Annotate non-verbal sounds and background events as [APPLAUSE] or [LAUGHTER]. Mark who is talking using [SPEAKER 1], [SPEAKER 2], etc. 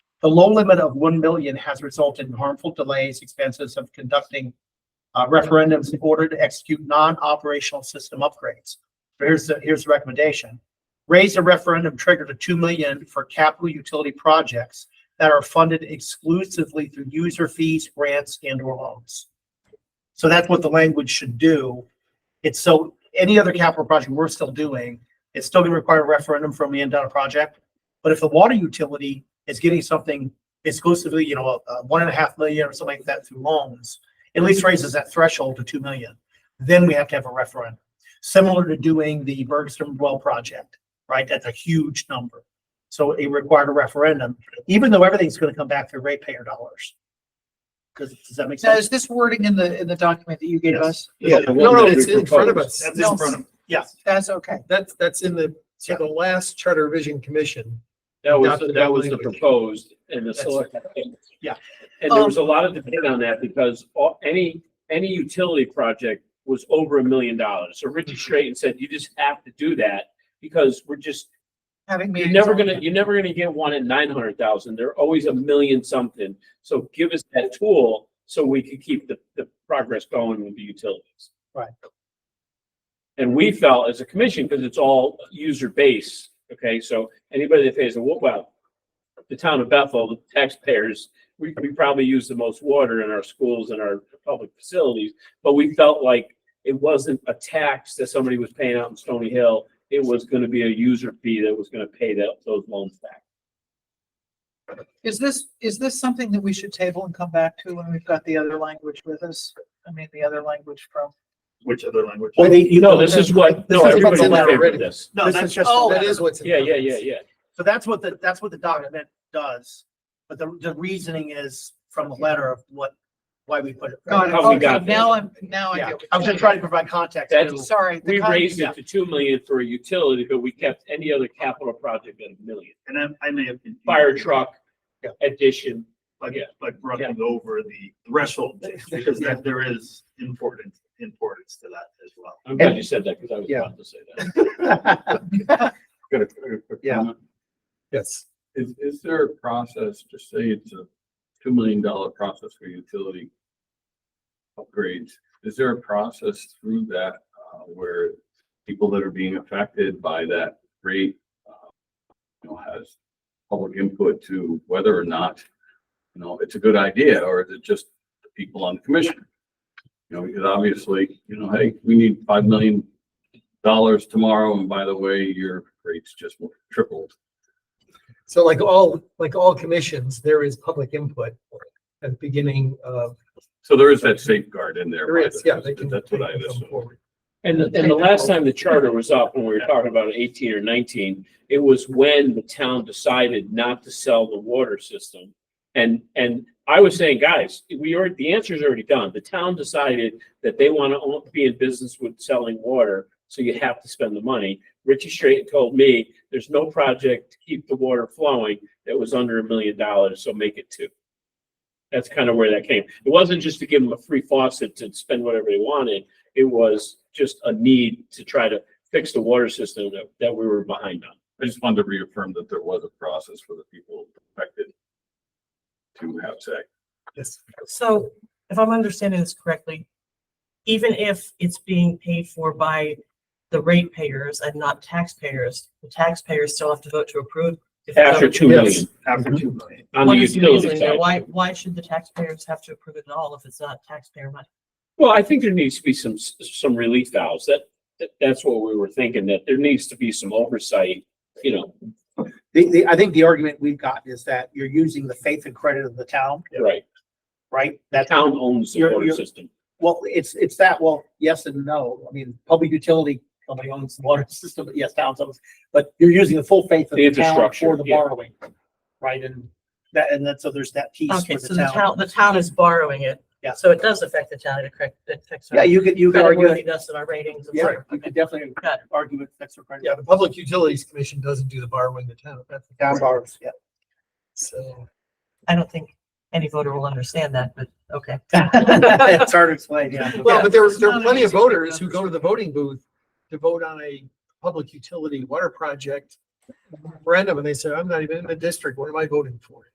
[SPEAKER 1] The low limit of one million has resulted in harmful delays, expenses of conducting uh, referendums in order to execute non-operational system upgrades. Here's the, here's the recommendation. Raise the referendum trigger to two million for capital utility projects that are funded exclusively through user fees, grants, and or loans. So that's what the language should do. It's so, any other capital project we're still doing, it's still gonna require a referendum from the end of the project. But if the water utility is getting something exclusively, you know, uh, one and a half million or something like that through loans, at least raises that threshold to two million. Then we have to have a referendum, similar to doing the Bergstrom well project, right? That's a huge number. So it required a referendum, even though everything's gonna come back through ratepayer dollars. Cause does that make
[SPEAKER 2] Now,
[SPEAKER 1] sense?
[SPEAKER 2] is this wording in the, in the document that you gave
[SPEAKER 1] Yes.
[SPEAKER 2] us?
[SPEAKER 3] Yeah, the
[SPEAKER 4] No,
[SPEAKER 3] one
[SPEAKER 4] no,
[SPEAKER 3] that
[SPEAKER 4] it's
[SPEAKER 3] we
[SPEAKER 4] in front of
[SPEAKER 3] proposed.
[SPEAKER 4] us.
[SPEAKER 1] That's in front of, yeah.
[SPEAKER 2] That's okay.
[SPEAKER 4] That's, that's in the, so
[SPEAKER 1] Yeah.
[SPEAKER 4] the last Charter Revision Commission.
[SPEAKER 3] That was,
[SPEAKER 4] Adopted
[SPEAKER 3] that
[SPEAKER 4] that
[SPEAKER 3] was the
[SPEAKER 4] language.
[SPEAKER 3] proposed and the
[SPEAKER 4] That's-
[SPEAKER 3] select.
[SPEAKER 1] Yeah.
[SPEAKER 3] And there was
[SPEAKER 4] Um,
[SPEAKER 3] a lot of debate on that because all, any, any utility project was over a million dollars. So
[SPEAKER 4] Mm-hmm.
[SPEAKER 3] Richard Straighten said, you just have to do that because we're just,
[SPEAKER 2] Having
[SPEAKER 3] you're
[SPEAKER 2] meetings.
[SPEAKER 3] never
[SPEAKER 2] on
[SPEAKER 3] gonna,
[SPEAKER 2] that.
[SPEAKER 3] you're never gonna get one at nine hundred thousand. They're always a million something. So give us that tool so we can keep the, the progress going with the utilities.
[SPEAKER 1] Right.
[SPEAKER 3] And we felt as a commission, because it's all user base, okay, so anybody that pays a, wa- well, the town of Bethel, the taxpayers, we, we probably use the most water in our schools and our public facilities, but we felt like it wasn't a tax that somebody was paying out in Stony Hill. It was gonna be a user fee that was gonna pay that, those loans back.
[SPEAKER 2] Is this, is this something that we should table and come back to when we've got the other language with us? I mean, the other language from.
[SPEAKER 4] Which other language?
[SPEAKER 1] Well, they- you
[SPEAKER 3] No,
[SPEAKER 1] know,
[SPEAKER 3] this is what, no,
[SPEAKER 4] This is
[SPEAKER 3] everybody's
[SPEAKER 4] what's
[SPEAKER 3] in
[SPEAKER 4] in there
[SPEAKER 3] favor of
[SPEAKER 4] already.
[SPEAKER 3] this.
[SPEAKER 1] No,
[SPEAKER 4] This
[SPEAKER 1] that's
[SPEAKER 4] is-
[SPEAKER 1] just.
[SPEAKER 2] oh,
[SPEAKER 1] the
[SPEAKER 4] That is
[SPEAKER 1] letter.
[SPEAKER 4] what's. in
[SPEAKER 3] Yeah,
[SPEAKER 4] there.
[SPEAKER 3] yeah, yeah, yeah.
[SPEAKER 1] So that's what the, that's what the document does, but the, the reasoning is from the letter of what, why we put it.
[SPEAKER 2] Got it.
[SPEAKER 3] How we
[SPEAKER 2] Okay,
[SPEAKER 3] got there.
[SPEAKER 2] Now I'm, now I
[SPEAKER 1] Yeah,
[SPEAKER 2] get. what
[SPEAKER 1] I was
[SPEAKER 2] you're
[SPEAKER 1] just trying to provide context.
[SPEAKER 3] That's-
[SPEAKER 1] to-
[SPEAKER 2] Sorry. the
[SPEAKER 3] We
[SPEAKER 2] con-
[SPEAKER 3] raised
[SPEAKER 1] yeah.
[SPEAKER 3] it to two million for a utility, but we kept any other capital project at a million.
[SPEAKER 5] And I, I may have. confused
[SPEAKER 3] Fire
[SPEAKER 5] you
[SPEAKER 3] truck
[SPEAKER 1] Yeah.
[SPEAKER 3] addition.
[SPEAKER 5] By,
[SPEAKER 3] yeah.
[SPEAKER 5] by brushing over the
[SPEAKER 1] [LAUGHS]
[SPEAKER 5] threshold, because that there is important, importance to that as well.
[SPEAKER 3] I'm glad you said that because I was
[SPEAKER 1] Yeah.
[SPEAKER 3] about to say that.
[SPEAKER 6] Got a quick- quick
[SPEAKER 1] Yeah.
[SPEAKER 6] comment.
[SPEAKER 4] [LAUGHS] Yes.
[SPEAKER 6] Is, is there a process, just say it's a two million dollar process for utility upgrades, is there a process through that, uh, where people that are being affected by that rate, uh, you know, has public input to whether or not, you know, it's a good idea, or is it just the people on the commission? You know, because obviously, you know, hey, we need five million dollars tomorrow, and by the way, your rates just tripled.
[SPEAKER 4] So like all, like all commissions, there is public input at the beginning of,
[SPEAKER 6] So there is that safeguard in there.
[SPEAKER 4] there
[SPEAKER 6] by
[SPEAKER 4] is,
[SPEAKER 6] the-
[SPEAKER 4] yeah, they can.
[SPEAKER 6] That's what
[SPEAKER 4] they
[SPEAKER 6] I
[SPEAKER 4] can come
[SPEAKER 6] assumed.
[SPEAKER 4] forward.
[SPEAKER 3] And, the- and the last time the charter was up, when we were talking about eighteen or nineteen, it was when the town decided not to sell the water system. And, and I was saying, guys, we already, the answer's already done. The town decided that they want to be in business with selling water, so you have to spend the money. Richie Straight told me, there's no project to keep the water flowing that was under a million dollars, so make it two. That's kind of where that came. It wasn't just to give them a free faucet to spend whatever they wanted. It was just a need to try to fix the water system that, that we were behind on.
[SPEAKER 6] I just wanted to reaffirm that there was a process for the people affected to have say.
[SPEAKER 4] Yes.
[SPEAKER 7] So if I'm understanding this correctly, even if it's being paid for by the ratepayers and not taxpayers, the taxpayers still have to vote to approve. if the
[SPEAKER 3] After
[SPEAKER 7] government-
[SPEAKER 3] two million
[SPEAKER 1] Mm-hmm.
[SPEAKER 5] After two million.
[SPEAKER 3] on the
[SPEAKER 7] What is the
[SPEAKER 3] utility
[SPEAKER 7] reason there?
[SPEAKER 3] side.
[SPEAKER 7] Why, why should the taxpayers have to approve it at all if it's not taxpayer money?
[SPEAKER 3] Well, I think there needs to be some, some relief valves. That, that, that's what we were thinking, that there needs to be some oversight, you know,
[SPEAKER 1] The, the, I think the argument we've gotten is that you're using the faith and credit of the town,
[SPEAKER 3] right?
[SPEAKER 1] right?
[SPEAKER 3] The
[SPEAKER 1] That's
[SPEAKER 3] town owns the
[SPEAKER 1] You're-
[SPEAKER 3] water
[SPEAKER 1] you're-
[SPEAKER 3] system.
[SPEAKER 1] Well, it's, it's that, well, yes and no. I mean, public utility company owns the water [LAUGHS] system, but yes, towns owns, but you're using the full faith of
[SPEAKER 3] The
[SPEAKER 1] the town
[SPEAKER 3] infrastructure,
[SPEAKER 1] for the
[SPEAKER 3] yeah.
[SPEAKER 1] borrowing. Right, and that, and that, so there's that piece
[SPEAKER 7] Okay,
[SPEAKER 1] for
[SPEAKER 7] so
[SPEAKER 1] the
[SPEAKER 7] the
[SPEAKER 1] town.
[SPEAKER 7] town, the town is borrowing it.
[SPEAKER 1] Yeah.
[SPEAKER 7] So it does affect the town, it correct, it affects. our
[SPEAKER 1] Yeah, you could, you could argue, it.
[SPEAKER 7] creditworthiness and our ratings. and
[SPEAKER 1] yeah,
[SPEAKER 7] stuff.
[SPEAKER 1] you could definitely
[SPEAKER 7] Got
[SPEAKER 1] argue with extra credit.
[SPEAKER 4] Yeah, the Public Utilities Commission doesn't do the borrowing the town. That's the
[SPEAKER 1] Town
[SPEAKER 4] town.
[SPEAKER 1] borrows,
[SPEAKER 7] [LAUGHS]
[SPEAKER 1] yeah. [LAUGHS]
[SPEAKER 4] So.
[SPEAKER 7] I don't think any voter will understand that, but okay.
[SPEAKER 1] It's hard to explain, yeah.
[SPEAKER 4] Well, but there were,
[SPEAKER 2] it's
[SPEAKER 4] there were
[SPEAKER 2] not an
[SPEAKER 4] plenty of
[SPEAKER 2] easy thing to
[SPEAKER 4] voters who go to the voting booth to vote on a public utility water project referendum, and they said, I'm not even in the district, what am I voting for?